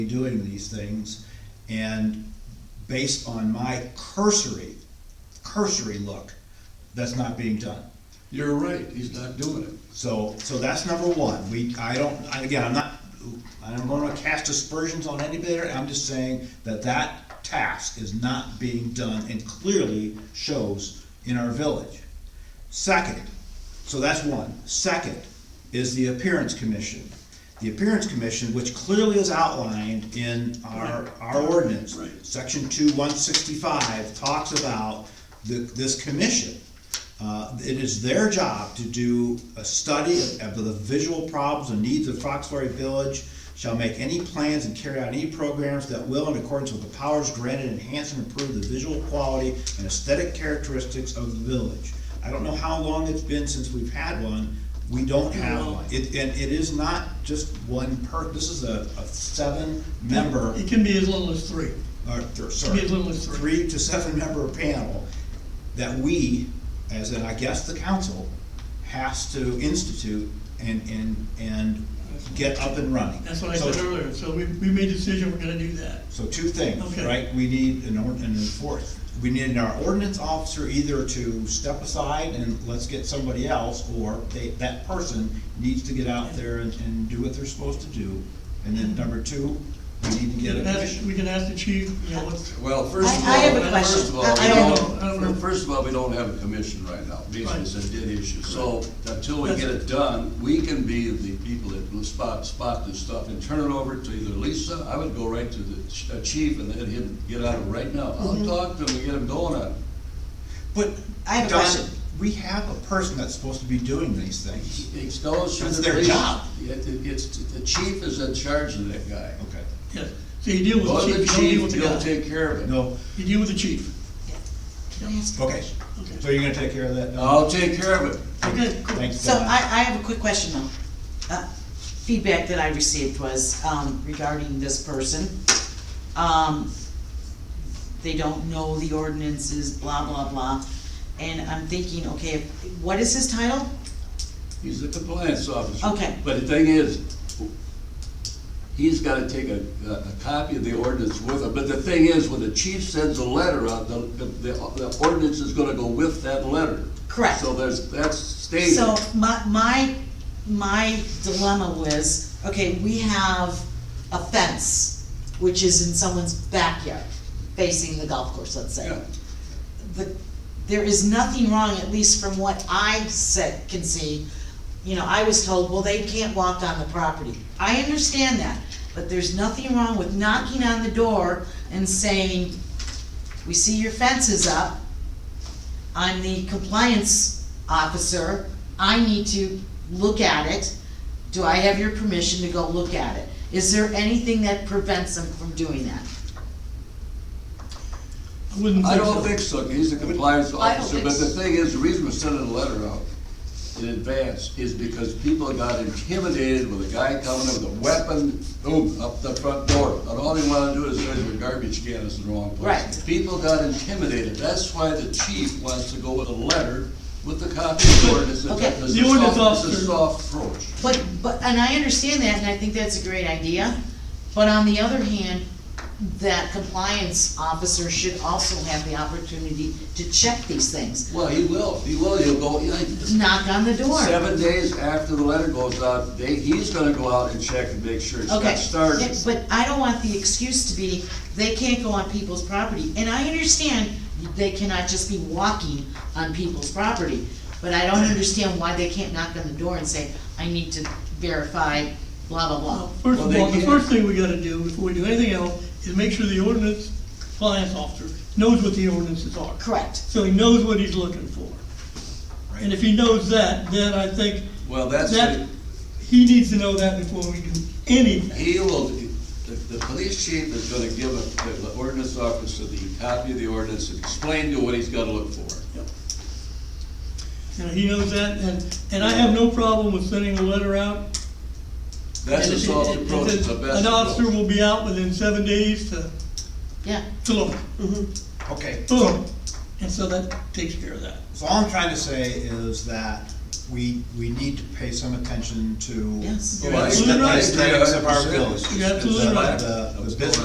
doing these things, and based on my cursory, cursory look, that's not being done. You're right, he's not doing it. So, so that's number one, we, I don't, I- again, I'm not, I'm gonna cast aspersions on anybody, I'm just saying that that task is not being done and clearly shows in our village. Second, so that's one. Second is the appearance commission. The appearance commission, which clearly is outlined in our, our ordinance. Right. Section two, one sixty-five talks about the, this commission. Uh, it is their job to do a study of of the visual problems and needs of Foxbury Village, shall make any plans and carry out any programs that will, in accordance with the powers granted, enhance and improve the visual quality and aesthetic characteristics of the village. I don't know how long it's been since we've had one, we don't have one. It, and it is not just one per, this is a, a seven-member It can be as little as three. or, th- sorry, be as little as three. three to seven member panel that we, as in, I guess, the council, has to institute and, and, and get up and running. That's what I So- said earlier. So we, we made a decision, we're gonna do that. So two things, Okay. right? We need an ord, an enforce, we need our ordinance officer either to step aside and let's get somebody else, or they, that person needs to get out there and, and do what they're supposed to do. And then Mm-hmm. number two, we need to We get a can ask, commission. we can ask the chief, you know, what's, Well, first of all. I- I have a First of question. all, I- we I don't know. I don't, don't know. fir- first of all, we don't have a commission right now, Right. because it's a dead issue. So until we get it done, we can be the people that will spot, spot this stuff and turn it over to either Lisa, I would go right to the ch- uh, chief and let him get out of it right now. Mm-hmm. I'll talk to him and get him going on it. But, I have a Don, question. we have a person that's supposed to be doing these things. It goes through That's the their police. job. It- it- it's, the chief is in charge of that guy. Okay. yes. So you deal with Go the to the chief, you don't deal chief, with the he'll guy. take care of it. No, You deal with the chief. Can I ask? okay, Okay. so you're gonna take care of that? Don? I'll take care of it. Okay, cool. Thanks, So Don. I, I have a quick question though. Uh, Feedback that I received was um, regarding this person. Um, They don't know the ordinances, blah, blah, blah. And I'm thinking, okay, what is his title? He's the compliance officer. Okay. But the thing is, he's gotta take a, a a copy of the ordinance with him, but the thing is, when the chief sends a letter out, the, the, the ordinance is gonna go with that letter. Correct. So there's, that's stated. So my, my, my dilemma was, okay, we have a fence, which is in someone's backyard, facing the golf course, let's say. Yeah. the, there is nothing wrong, at least from what I said, can see. You know, I was told, well, they can't walk on the property. I understand that, but there's nothing wrong with knocking on the door and saying, we see your fence is up. I'm the compliance officer, I need to look at it. Do I have your permission to go look at it? Is there anything that prevents them from doing that? I wouldn't I think don't so. think so, he's a compliance I don't officer, think but the so. thing is, the reason we're sending a letter out in advance is because people got intimidated with a guy coming in with a weapon, boom, up the front door, and all they wanna do is raise their garbage can is in the wrong place. Right. People got intimidated, that's why the chief wants to go with a letter with the copy of the ordinance. It's a- Okay. it's a The ordinance soft- It's a officer- soft approach. But, but, and I understand that, and I think that's a great idea, but on the other hand, that compliance officer should also have the opportunity to check these things. Well, he will, he will, he'll go, yeah, Knock on the door. Seven days after the letter goes out, they, he's gonna go out and check and make sure it's Okay, not started. Yeah, But I don't want the excuse to be, they can't go on people's property, and I understand they cannot just be walking on people's property, but I don't understand why they can't knock on the door and say, I need to verify, blah, blah, blah. First Well, of they all, the can't- first thing we gotta do before we do anything else is make sure the ordinance compliance officer knows what the ordinances are. Correct. So he knows what he's looking for. And if he knows that, then I think Well, that's, that, he needs to know that before we do anything. he will, the, the police chief is gonna give the the ordinance officer the copy of the ordinance and explain to what he's gotta look for. You know, he knows that, and, and I have no problem with sending a letter out. That's And a it- soft it- approach, it- it's the best An officer approach. will be out within seven days to, Yeah. to look, Okay, Mm-hmm. boom, and so that takes care of that. so all I'm trying to say is that we, we need to pay some attention to Yes. the Well, I- aesthetics of our I- village. You're absolutely The- right. the- the That was going business